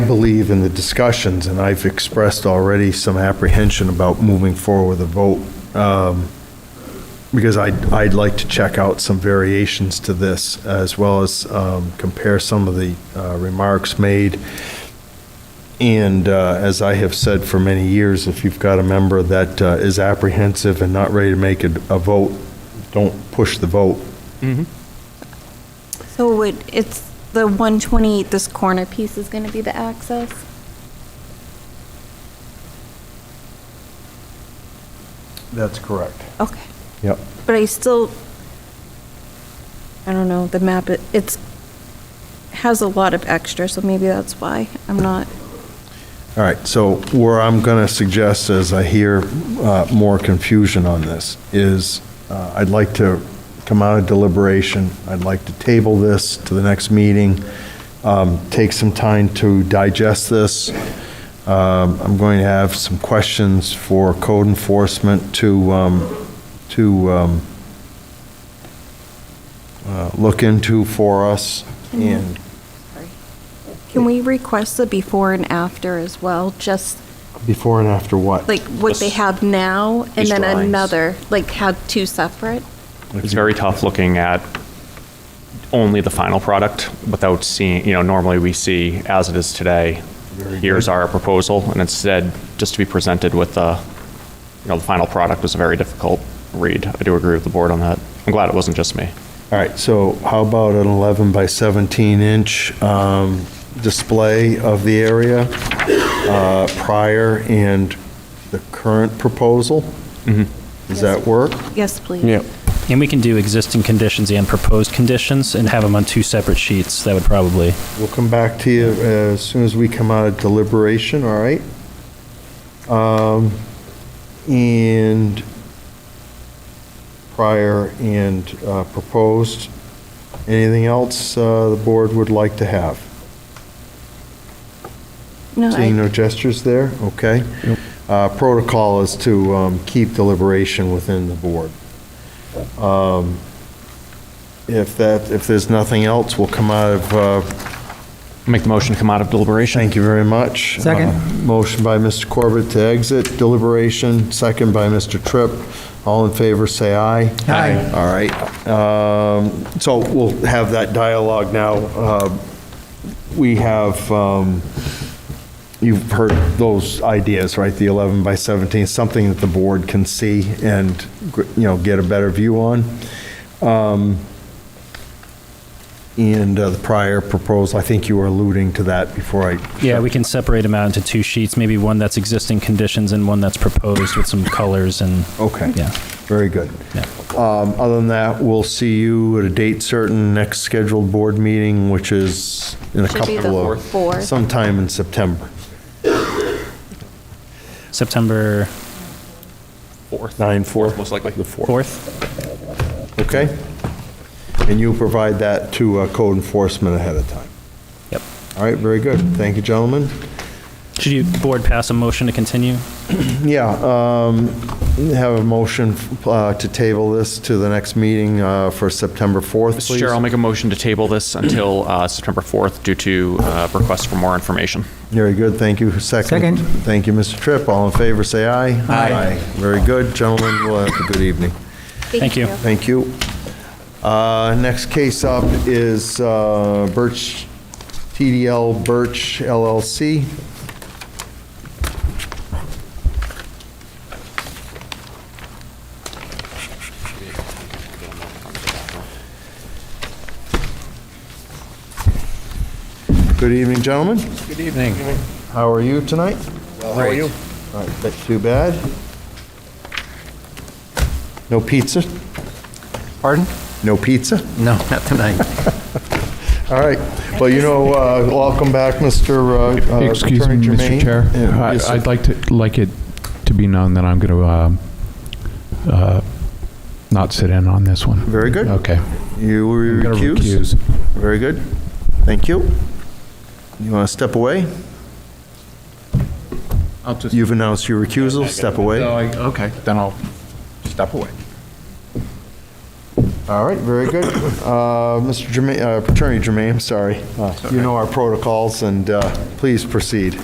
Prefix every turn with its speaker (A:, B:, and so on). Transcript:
A: believe in the discussions, and I've expressed already some apprehension about moving forward with a vote, um, because I'd, I'd like to check out some variations to this, as well as um, compare some of the uh, remarks made. And uh, as I have said for many years, if you've got a member that uh, is apprehensive and not ready to make a a vote, don't push the vote.
B: So it, it's the 128, this corner piece is going to be the access?
A: That's correct.
B: Okay.
A: Yep.
B: But I still, I don't know, the map, it- it's, has a lot of extra, so maybe that's why I'm not.
A: All right, so where I'm going to suggest, as I hear uh, more confusion on this, is uh, I'd like to come out of deliberation, I'd like to table this to the next meeting, um, take some time to digest this. Um, I'm going to have some questions for code enforcement to, um, to um, uh, look into for us, and
B: Can we request the before and after as well? Just
A: before and after what?
B: like what they have now and
C: These
B: then
C: drawings.
B: another, like have two separate?
C: It's very tough looking at only the final product without seeing, you know, normally we see as it is today, here's our proposal, and instead, just to be presented with the, you know, the final product was a very difficult read. I do agree with the board on that. I'm glad it wasn't just me.
A: All right, so how about an 11 by 17 inch um, display of the area uh, prior and the current proposal?
C: Mm-hmm.
A: Mm-hmm. Does that work?
B: Yes, please.
D: And we can do existing conditions and proposed conditions and have them on two separate sheets. That would probably,
A: We'll come back to you as soon as we come out of deliberation, all right? Um, And prior and uh, proposed, anything else uh, the board would like to have?
B: No, I-
A: Seeing no gestures there, okay. Uh, Protocol is to um, keep deliberation within the board. Um, If that, if there's nothing else, we'll come out of, uh,
C: Make the motion to come out of deliberation.
A: thank you very much.
E: Second.
A: Uh, Motion by Mr. Corbett to exit deliberation, second by Mr. Tripp. All in favor, say aye.
E: Aye.
A: All right. Um, So we'll have that dialogue now. Uh, We have, um, you've heard those ideas, right? The 11 by 17, something that the board can see and, you know, get a better view on. Um, And uh, the prior proposal, I think you were alluding to that before I.
D: yeah, we can separate them out into two sheets, maybe one that's existing conditions and one that's proposed with some colors and,
A: Okay.
D: yeah.
A: Very good.
D: Yeah.
A: Um, Other than that, we'll see you at a date certain, next scheduled board meeting, which is in a
B: Should be the
A: couple of.
B: fourth.
A: Sometime in September,
D: September
C: Fourth.
A: 9/4.
C: Most likely. The fourth.
D: 4th?
A: okay? And you provide that to uh, code enforcement ahead of time.
D: Yep.
A: All right, very good. Thank you, gentlemen.
D: Should you, board pass a motion to continue?
A: Yeah, um, have a motion uh, to table this to the next meeting uh, for September 4th,
C: Mr.
A: please.
C: Chair, I'll make a motion to table this until uh, September 4th due to uh, requests for more information.
A: Very good, thank you. Second.
E: Second.
A: Thank you, Mr. Tripp. All in favor, say aye.
E: Aye.
A: Very good, gentlemen, we'll have a good evening.
D: Thank you.
A: Thank you. Uh, Next case up is uh, Birch, TDL Birch LLC. Good evening, gentlemen. Good evening. How are you tonight? Well, how are you? All right, not too bad. No pizza?
E: Pardon?
A: No pizza?
E: No, not tonight.
A: All right. Well, you know, uh, welcome back, Mr. uh, uh,
F: Excuse me,
A: Attorney Jermaine.
F: Mr. Chair.
A: Yeah,
F: I-
A: yes, sir.
F: I'd like to, like it to be known that I'm going to not sit in on this one.
A: Very good.
F: Okay.
A: You were
F: I'm gonna
A: recused?
F: recuse.
A: Very good. Thank you. You want to step away?
F: I'll just,
A: You've announced your recusal, step away.
F: okay, then I'll step away.
A: All right, very good. Uh, Mr. Jermaine, uh, Attorney Jermaine, I'm sorry. You know our protocols, and uh, please proceed.